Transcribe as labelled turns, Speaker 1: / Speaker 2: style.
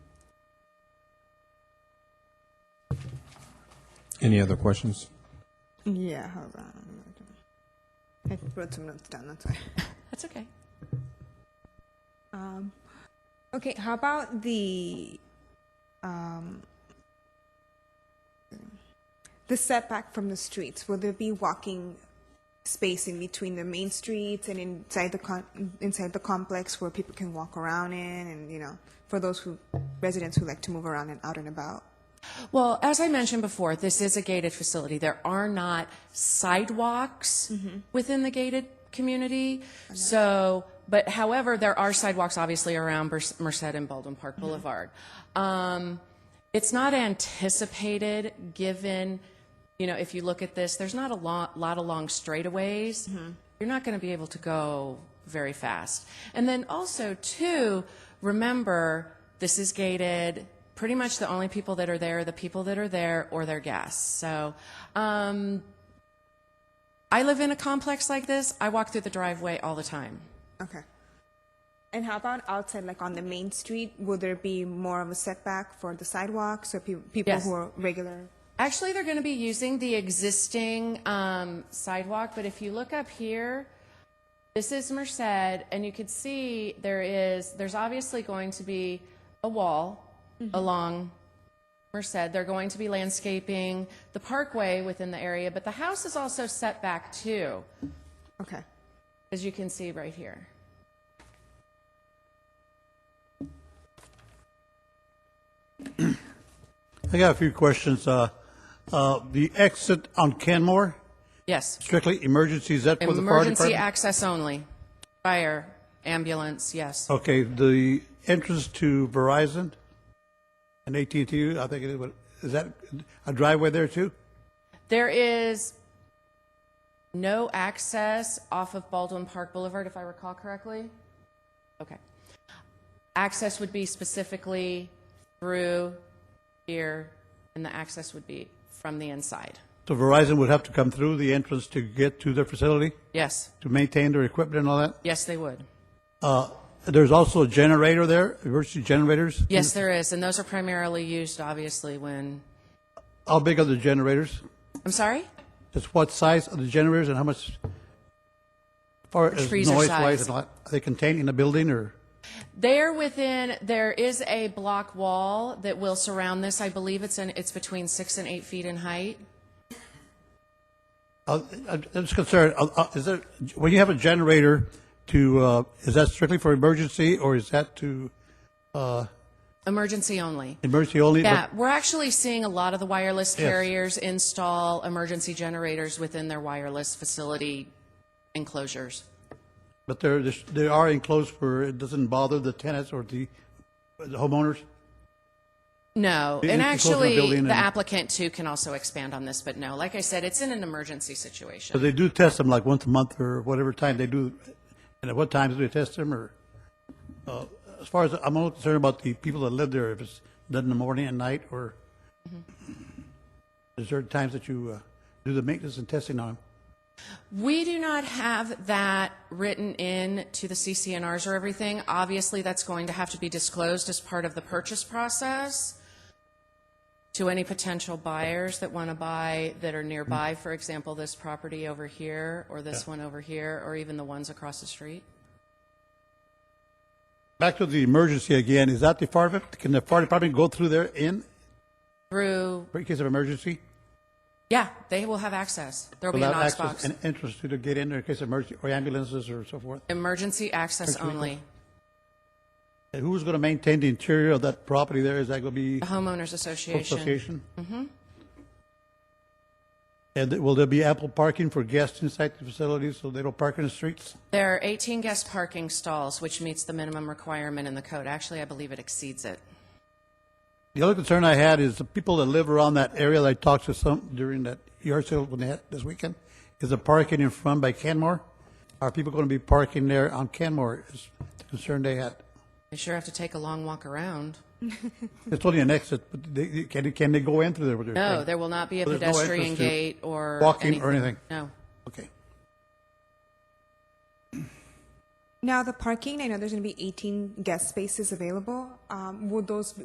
Speaker 1: Any other questions?
Speaker 2: Yeah, hold on. I wrote some notes down, that's why.
Speaker 3: That's okay.
Speaker 2: Um, okay, how about the um, the setback from the streets? Will there be walking space in between the main streets and inside the con- inside the complex where people can walk around in, and you know, for those who residents who like to move around and out and about?
Speaker 3: Well, as I mentioned before, this is a gated facility. There are not sidewalks within the gated community. So, but however, there are sidewalks obviously around Bers- Merced and Baldwin Park Boulevard. Um, it's not anticipated, given, you know, if you look at this, there's not a lot, lot of long straightaways. You're not going to be able to go very fast. And then also, too, remember this is gated. Pretty much the only people that are there are the people that are there or their guests. So, um, I live in a complex like this. I walk through the driveway all the time.
Speaker 2: Okay. And how about outside, like on the main street? Will there be more of a setback for the sidewalks or pe- people
Speaker 3: Yes.
Speaker 2: who are regular?
Speaker 3: Actually, they're going to be using the existing um, sidewalk, but if you look up here, this is Merced, and you could see there is, there's obviously going to be a wall along Merced. They're going to be landscaping the parkway within the area, but the house is also set back too,
Speaker 2: Okay.
Speaker 3: as you can see right here.
Speaker 4: I got a few questions. Uh, uh, The exit on Canmore,
Speaker 3: Yes.
Speaker 4: strictly emergency, is that for the fire
Speaker 3: Emergency
Speaker 4: department?
Speaker 3: access only. Fire, ambulance, yes.
Speaker 4: Okay, the entrance to Verizon and at and T. I think it is, what- is that a driveway there too?
Speaker 3: There is no access off of Baldwin Park Boulevard, if I recall correctly. Okay. Access would be specifically through here, and the access would be from the inside.
Speaker 4: So Verizon would have to come through the entrance to get to their facility,
Speaker 3: Yes,
Speaker 4: to maintain their equipment and all that?
Speaker 3: yes, they would.
Speaker 4: Uh, There's also a generator there, emergency generators?
Speaker 3: Yes, there is, and those are primarily used, obviously, when,
Speaker 4: How big are the generators?
Speaker 3: I'm sorry?
Speaker 4: Just what size are the generators and how much, as far as
Speaker 3: freezer size?
Speaker 4: noise-wise and all that? Are they contained in a building or?
Speaker 3: There within, there is a block wall that will surround this. I believe it's in, it's between six and eight feet in height.
Speaker 4: Uh, I'm just concerned, uh, uh, is there, when you have a generator to, uh, is that strictly for emergency or is that to uh,
Speaker 3: Emergency only.
Speaker 4: emergency only?
Speaker 3: Yeah, we're actually seeing a lot of the wireless
Speaker 4: Yes.
Speaker 3: carriers install emergency generators within their wireless facility enclosures.
Speaker 4: But they're, they are enclosed for, it doesn't bother the tenants or the the homeowners?
Speaker 3: No,
Speaker 4: The
Speaker 3: and
Speaker 4: enclosure
Speaker 3: actually,
Speaker 4: building
Speaker 3: the
Speaker 4: and-
Speaker 3: applicant too can also expand on this, but no, like I said, it's in an emergency situation.
Speaker 4: So they do test them like once a month or whatever time they do, and at what times do they test them or? uh, As far as, I'm only concerned about the people that live there, if it's done in the morning and night or
Speaker 3: Mm-hmm.
Speaker 4: is there times that you uh, do the maintenance and testing on them?
Speaker 3: We do not have that written in to the CCNRs or everything. Obviously, that's going to have to be disclosed as part of the purchase process to any potential buyers that want to buy that are nearby, for example, this property over here, or this one over here, or even the ones across the street.
Speaker 4: Back to the emergency again, is that the fire, dep- can the fire department go through there in,
Speaker 3: Through,
Speaker 4: for in case of emergency?
Speaker 3: yeah, they will have access. There'll be an
Speaker 4: Without
Speaker 3: aux
Speaker 4: access
Speaker 3: box.
Speaker 4: and entrance to to get in there in case of emergency, or ambulances or so forth?
Speaker 3: Emergency access only.
Speaker 4: And who's going to maintain the interior of that property there? Is that going to be
Speaker 3: The homeowners
Speaker 4: association? Mm-hmm. And will there be ample parking for guests inside the facility so they don't park in the streets?
Speaker 3: There are 18 guest parking stalls, which meets the minimum requirement in the code. Actually, I believe it exceeds it.
Speaker 4: The other concern I had is the people that live around that area that I talked to some during that yard sale when they had this weekend, is the parking in front by Canmore? Are people going to be parking there on Canmore is the concern they had.
Speaker 3: They sure have to take a long walk around.
Speaker 4: It's only an exit, but they, can, can they go in through there? with their
Speaker 3: No,
Speaker 4: thing?
Speaker 3: there will not be a
Speaker 4: There's no entrance
Speaker 3: pedestrian
Speaker 4: to
Speaker 3: gate or
Speaker 4: walking or anything.
Speaker 3: No.
Speaker 4: Okay.
Speaker 2: Now the parking. I know there's going to be 18 guest spaces available. Um, will those